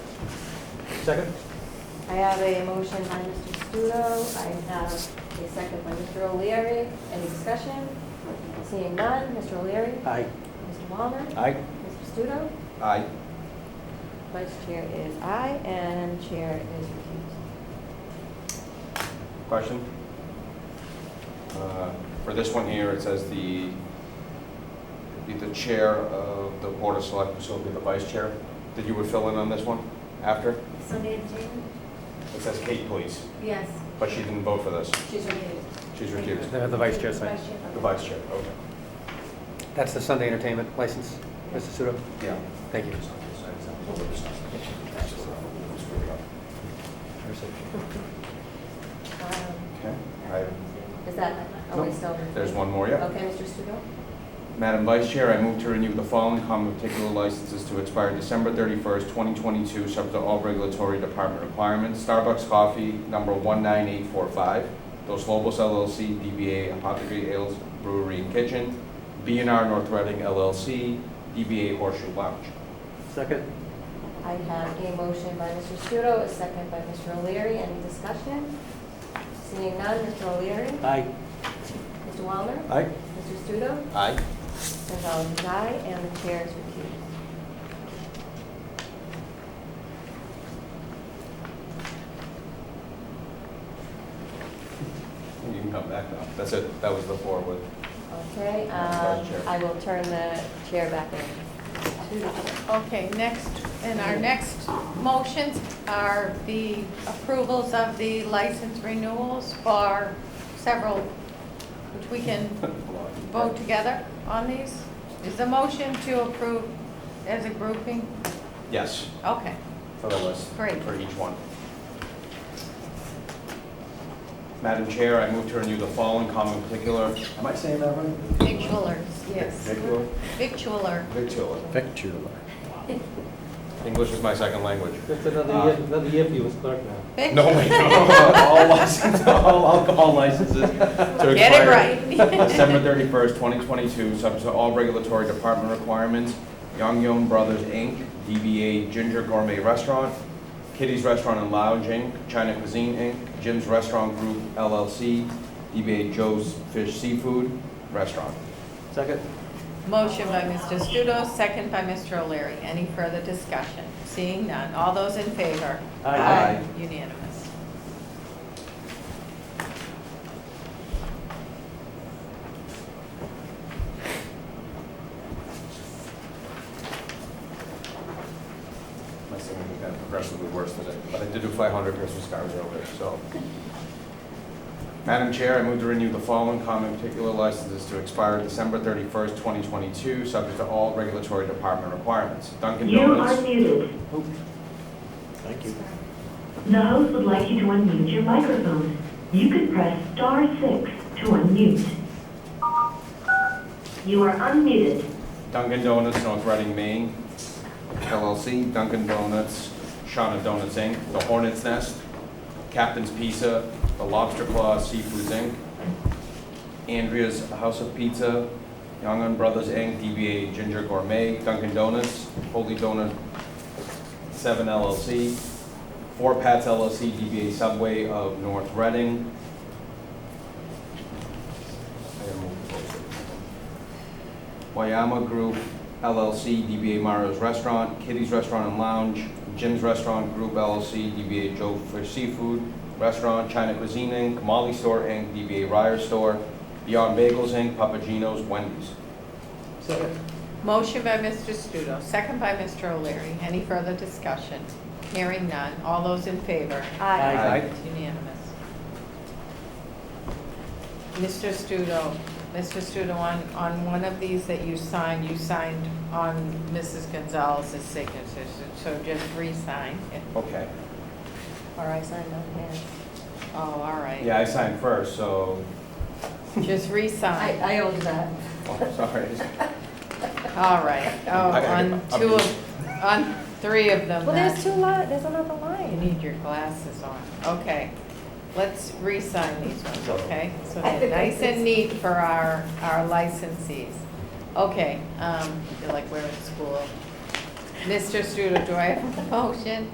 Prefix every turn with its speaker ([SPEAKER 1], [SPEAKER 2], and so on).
[SPEAKER 1] Second?
[SPEAKER 2] I have a motion by Mr. Studo, I have a second by Mr. O'Leary. Any discussion? Seeing none, Mr. O'Leary?
[SPEAKER 1] Aye.
[SPEAKER 2] Mr. Walner?
[SPEAKER 1] Aye.
[SPEAKER 2] Mr. Studo?
[SPEAKER 3] Aye.
[SPEAKER 2] Vice Chair is aye, and Chair is recused.
[SPEAKER 3] Question? Uh, For this one here, it says the, be the chair of the board of select, so it'll be the vice chair, that you would fill in on this one after?
[SPEAKER 4] So did Jane?
[SPEAKER 3] It says Kate, please,
[SPEAKER 4] Yes,
[SPEAKER 3] but she didn't vote for this.
[SPEAKER 4] she's recused.
[SPEAKER 3] She's recused.
[SPEAKER 1] The the vice chair side.
[SPEAKER 4] Vice
[SPEAKER 3] The vice chair, okay.
[SPEAKER 1] That's the Sunday entertainment license, Mr. Studo?
[SPEAKER 3] Yeah.
[SPEAKER 1] Thank you.
[SPEAKER 2] Um,
[SPEAKER 3] Okay. I-
[SPEAKER 2] Is that, oh, wait, so.
[SPEAKER 3] There's one more, yeah.
[SPEAKER 2] Okay, Mr. Studo?
[SPEAKER 3] Madam Vice Chair, I move to renew the following common particular licenses to expire December 31st, 2022, subject to all regulatory department requirements. Starbucks Coffee, number 19845, Dos Lobos LLC, DBA Apothecary Ales Brewery and Kitchen, b and r North Reading LLC, DBA Horseshoe Lounge.
[SPEAKER 1] Second?
[SPEAKER 2] I have a motion by Mr. Studo, a second by Mr. O'Leary. Any discussion? Seeing none, Mr. O'Leary?
[SPEAKER 1] Aye.
[SPEAKER 2] Mr. Walner?
[SPEAKER 1] Aye.
[SPEAKER 2] Mr. Studo?
[SPEAKER 3] Aye.
[SPEAKER 2] Gonzalez is aye, and the chair is recused.
[SPEAKER 3] You can come back now. That's it. That was the four with,
[SPEAKER 2] Okay, um,
[SPEAKER 3] Madam Chair.
[SPEAKER 2] I will turn the chair back in. to the chair.
[SPEAKER 5] Okay, next, and our next motions are the approvals of the license renewals for several, which we can vote together on these. Is the motion to approve as a grouping?
[SPEAKER 3] yes,
[SPEAKER 5] Okay,
[SPEAKER 3] for the list.
[SPEAKER 5] Great.
[SPEAKER 3] For each one. Madam Chair, I move to renew the following common particular. Am I saying that right?
[SPEAKER 5] victualers, yes.
[SPEAKER 3] Victular?
[SPEAKER 5] Victualer,
[SPEAKER 3] Victular. English is my second language. Uh,
[SPEAKER 1] That's another year, another year for you as clerk now.
[SPEAKER 5] vic,
[SPEAKER 3] No, wait, no. All licenses, all alcohol licenses to
[SPEAKER 5] get it
[SPEAKER 3] expire
[SPEAKER 5] right.
[SPEAKER 3] December 31st, 2022, subject to all regulatory department requirements. Young Yum Brothers, Inc., DBA Ginger Gourmet Restaurant, Kitty's Restaurant and Lounge, Inc., China Cuisine, Inc., Jim's Restaurant Group, LLC, DBA Joe's Fish Seafood Restaurant.
[SPEAKER 1] Second?
[SPEAKER 5] Motion by Mr. Studo, second by Mr. O'Leary. Any further discussion? Seeing none. All those in favor?
[SPEAKER 1] Aye.
[SPEAKER 5] Unanimous.
[SPEAKER 3] My singing got progressively worse today, but I did do 500 Christmas cards earlier, so. Madam Chair, I move to renew the following common particular licenses to expire December 31st, 2022, subject to all regulatory department requirements. Dunkin'
[SPEAKER 6] You are
[SPEAKER 3] Donuts.
[SPEAKER 6] muted.
[SPEAKER 1] Thank you.
[SPEAKER 6] The host would like you to unmute your microphone. You can press star six to unmute. You are unmuted.
[SPEAKER 3] Dunkin' Donuts, North Reading, Maine, LLC, Dunkin' Donuts, Shawna Donuts, Inc., The Hornet's Nest, Captain's Pizza, The Lobster Claw Seafoods, Inc., Andrea's House of Pizza, Young and Brothers, Inc., DBA Ginger Gourmet, Dunkin' Donuts, Holy Donut 7 LLC, Four Pats LLC, DBA Subway of North Reading. I gotta move closer. Wayama Group LLC, DBA Mario's Restaurant, Kitty's Restaurant and Lounge, Jim's Restaurant Group LLC, DBA Joe for Seafood Restaurant, China Cuisine Inc., Molly Store Inc., DBA Ryer Store, Beyond Bagels Inc., Papagino's, Wendy's.
[SPEAKER 1] Second?
[SPEAKER 5] Motion by Mr. Studo, second by Mr. O'Leary. Any further discussion? Hearing none. All those in favor?
[SPEAKER 2] Aye.
[SPEAKER 3] Aye.
[SPEAKER 5] It's unanimous. Mr. Studo, Mr. Studo, on, on one of these that you signed, you signed on Mrs. Gonzalez's signature, so so just re-sign it.
[SPEAKER 3] Okay.
[SPEAKER 2] Or I sign on hand.
[SPEAKER 5] Oh, all right.
[SPEAKER 3] Yeah, I signed first, so,
[SPEAKER 5] Just
[SPEAKER 2] I,
[SPEAKER 5] re-sign.
[SPEAKER 2] I owe you that.
[SPEAKER 3] oh, sorry.
[SPEAKER 5] All right. Oh,
[SPEAKER 3] I- I-
[SPEAKER 5] on
[SPEAKER 3] I'm
[SPEAKER 5] two
[SPEAKER 3] just-
[SPEAKER 5] of, on three of them.
[SPEAKER 2] Well,
[SPEAKER 5] that's-
[SPEAKER 2] there's two li, there's another
[SPEAKER 5] You
[SPEAKER 2] line.
[SPEAKER 5] need your glasses on. Okay, let's re-sign these ones, okay? So
[SPEAKER 2] I
[SPEAKER 5] they're
[SPEAKER 2] think I
[SPEAKER 5] nice
[SPEAKER 2] did.
[SPEAKER 5] and neat for our, our licensees. Okay, um, I feel like we're in school. Mr. Studo, do I have a motion?